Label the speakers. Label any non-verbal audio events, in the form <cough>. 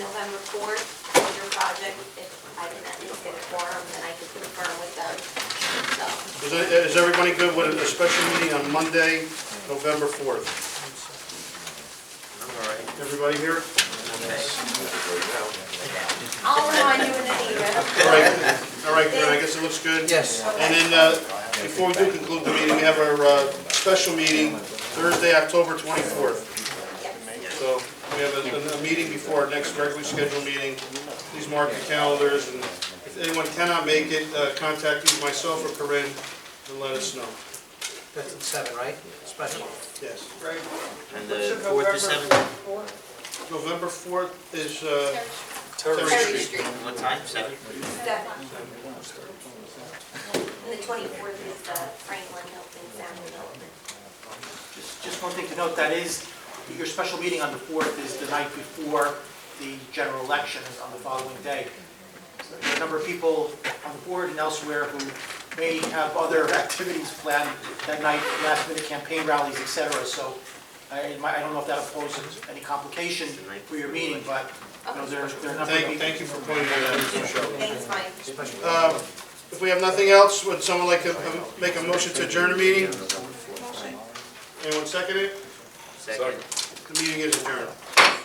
Speaker 1: support your project, if I can at least get a forum, then I could confirm with them, so.
Speaker 2: Is it- Is everybody good with a special meeting on Monday, November 4th? Everybody here?
Speaker 1: I'll remind you in an email.
Speaker 2: All right, all right, good, I guess it looks good.
Speaker 3: Yes.
Speaker 2: And then, uh, before we do conclude the meeting, we have our uh, special meeting Thursday, October 24th. So we have a- a meeting before our next regularly scheduled meeting. Please mark your calendars, and if anyone cannot make it, uh, contact either myself or Corinne and let us know.
Speaker 3: That's at seven, right? Special.
Speaker 2: Yes.
Speaker 4: And the fourth to seventh,
Speaker 2: November 4th is uh,
Speaker 1: Thirty
Speaker 2: Terry Street.
Speaker 1: Street,
Speaker 4: what time, seven?
Speaker 1: Stefan. And the twenty-fourth is the Franklin Hilton Sound Development.
Speaker 5: Just just one thing to note, that is, your special meeting on the 4th is the night before the general election is on the following day. So There are a number of people on the board and elsewhere who may have other <laughs> activities planned that night, last minute campaign rallies, et cetera. So I it might- I don't know if that poses any complication for your meeting, but, you know, there's, there are a number of
Speaker 2: Thank,
Speaker 5: people.
Speaker 2: thank you for pointing that out, Mr. Schultz.
Speaker 1: Thanks, Mike.
Speaker 2: Um, If we have nothing else, would someone like to uh, make a motion to adjourn the meeting? Anyone second it?
Speaker 4: Second.
Speaker 2: The meeting is adjourned.